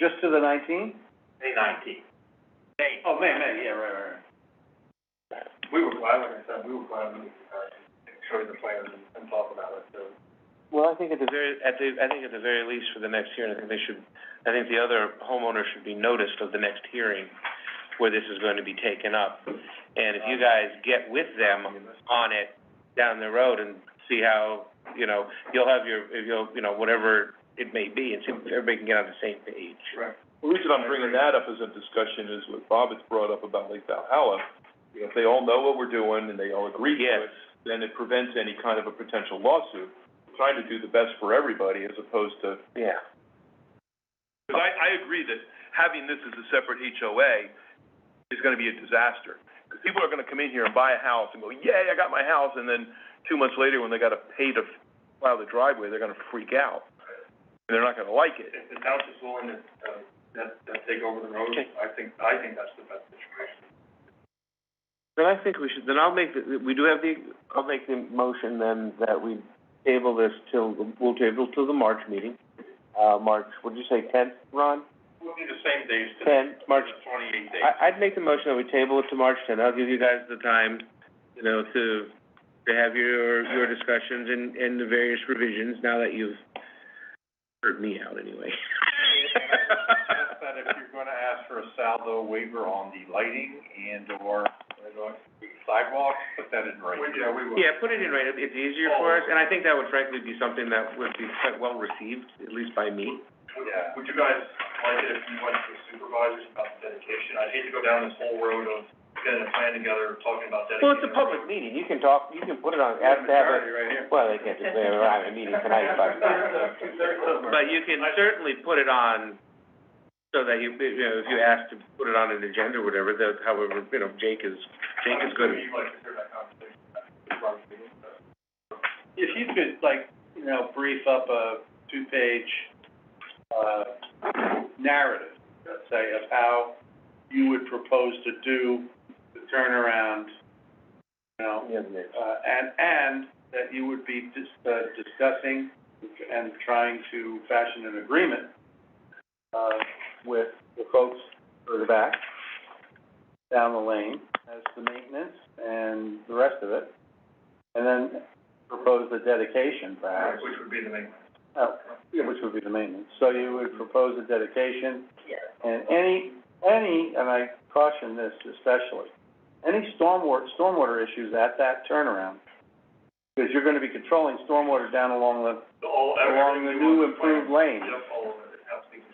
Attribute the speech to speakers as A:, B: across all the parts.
A: Just to the nineteenth?
B: May nineteenth. May.
A: Oh, May, May, yeah, right, right, right.
B: We were glad, like I said, we were glad when, uh, show you the plans and, and talk about it, so.
C: Well, I think at the very, at the, I think at the very least for the next hearing, I think they should, I think the other homeowner should be noticed of the next hearing where this is going to be taken up. And if you guys get with them on it down the road and see how, you know, you'll have your, if you'll, you know, whatever it may be, and see if everybody can get on the same page.
B: Right.
D: The reason I'm bringing that up as a discussion is what Bob has brought up about Lake Valhalla. If they all know what we're doing and they all agree to
C: Yes.
D: it, then it prevents any kind of a potential lawsuit. Trying to do the best for everybody as opposed to.
C: Yeah.
D: Because I, I agree that having this as a separate HOA is gonna be a disaster. Because people are gonna come in here and buy a house and go, yay, I got my house, and then two months later, when they gotta pay to file the driveway, they're gonna freak out. And they're not gonna like it.
B: If the town's is willing to, uh, that, that take over the road,
C: Okay.
B: I think, I think that's the best situation.
C: Then I think we should, then I'll make, the we do have the, I'll make the motion then that we table this till, we'll table till the March meeting. Uh, March, what'd you say, tenth, Ron?
B: We'll be the same days today.
C: Tenth, March
B: Twenty-eight days.
C: I, I'd make the motion that we table it to March tenth. I'll give you guys the time, you know, to, to have your, your discussions and, and the various revisions now that you've heard me out anyway.
B: Ask that if you're gonna ask for a saldo waiver on the lighting and or sidewalks, put that in writing. Yeah, we will.
C: Yeah, put it in writing. It's easier for us, and I think that would frankly be something that would be quite well received, at least by me.
B: Would, would you guys like it if you went to supervisors about the dedication? I'd hate to go down this whole road of getting a plan together, talking about dedicating.
C: Well, it's a
B: the
C: public
B: road.
C: meeting. You can talk, you can put it on, have to have it.
B: Majority right here.
C: Well, they can't just, they're having a meeting tonight, but. But you can certainly put it on, so that you, you know, if you ask to put it on an agenda or whatever, that however, you know, Jake is, Jake is good.
B: You'd like to hear that conversation.
A: If you could, like, you know, brief up a two-page, uh, narrative, let's say, of how you would propose to do the turnaround, you know, uh, and, and that you would be dis- uh, discussing and trying to fashion an agreement, uh, with the folks further back, down the lane, as to maintenance and the rest of it. And then propose the dedication perhaps,
B: Which would be the main.
A: uh, which would be the maintenance. So you would propose a dedication. And any, any, and I caution this especially, any stormwater, stormwater issues at that turnaround, because you're gonna be controlling stormwater down along the,
B: All,
A: along the new improved lane.
B: Yep, all of it, absolutely.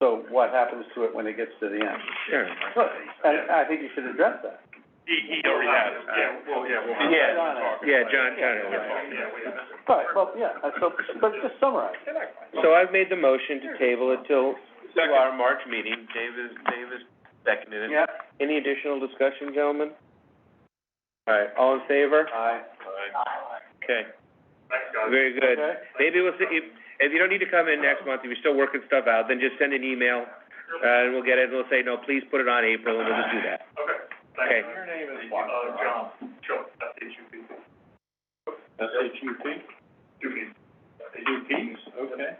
A: So what happens to it when it gets to the end?
C: Sure.
A: Look, And I think you should address that.
B: He, he already has, yeah, well, yeah, we'll.
C: Yeah. Yeah, John,
B: Yeah,
C: John.
B: we have. it.
A: Right, well, yeah, and so, but just summarize.
C: So I've made the motion to table it till, till our March meeting. Dave is, Dave is seconded it.
A: Yeah.
C: Any additional discussion, gentlemen? All right, all in favor?
A: Aye.
C: Okay,
B: Thanks, guys.
C: very good.
A: Okay.
C: Maybe we'll, see- if, if you don't need to come in next month, if you're still working stuff out, then just send an email, uh, and we'll get it, and we'll say, no, please put it on April, and we'll just do that.
B: Okay.
C: Okay.
B: Your name is what? Uh, John, Chuck, that's H U P.
D: S H U P?
B: Dupies.
D: UPs, okay.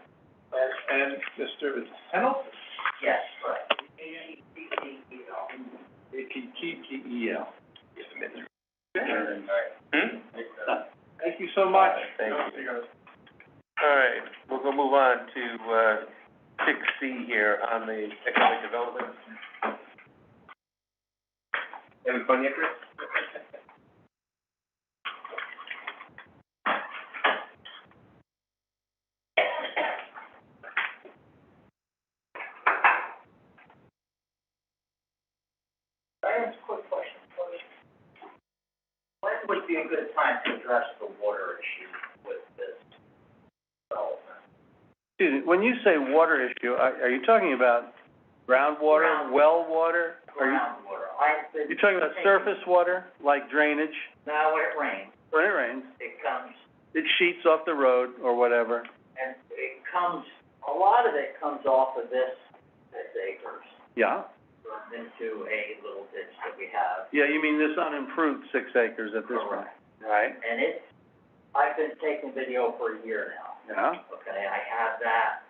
D: And Mr. Pennell?
E: E
D: Yes, right. A T T T E L.
C: Hmm?
A: Thank you so much.
B: you guys.
C: All right, we'll go move on to, uh, six C here on the economic development. Having fun yet, Chris?
E: I have a quick question for you. When would be a good time to address the water issue with this development?
A: Excuse me, when you say water issue, are, are you talking about groundwater,
E: Ground.
A: well water? Are you,
E: Groundwater, I've been.
A: you're talking about
E: taking-
A: surface water, like drainage,
E: Now, when it rains,
A: when it rains,
E: it comes,
A: it sheets off the road or whatever?
E: and it comes, a lot of it comes off of this, this acres,
A: Yeah,
E: runs into a little ditch that we have.
A: yeah, you mean this unimproved six acres at this point, right?
E: And it's, I've been taking video for a year now.
A: Yeah,
E: Okay, I have that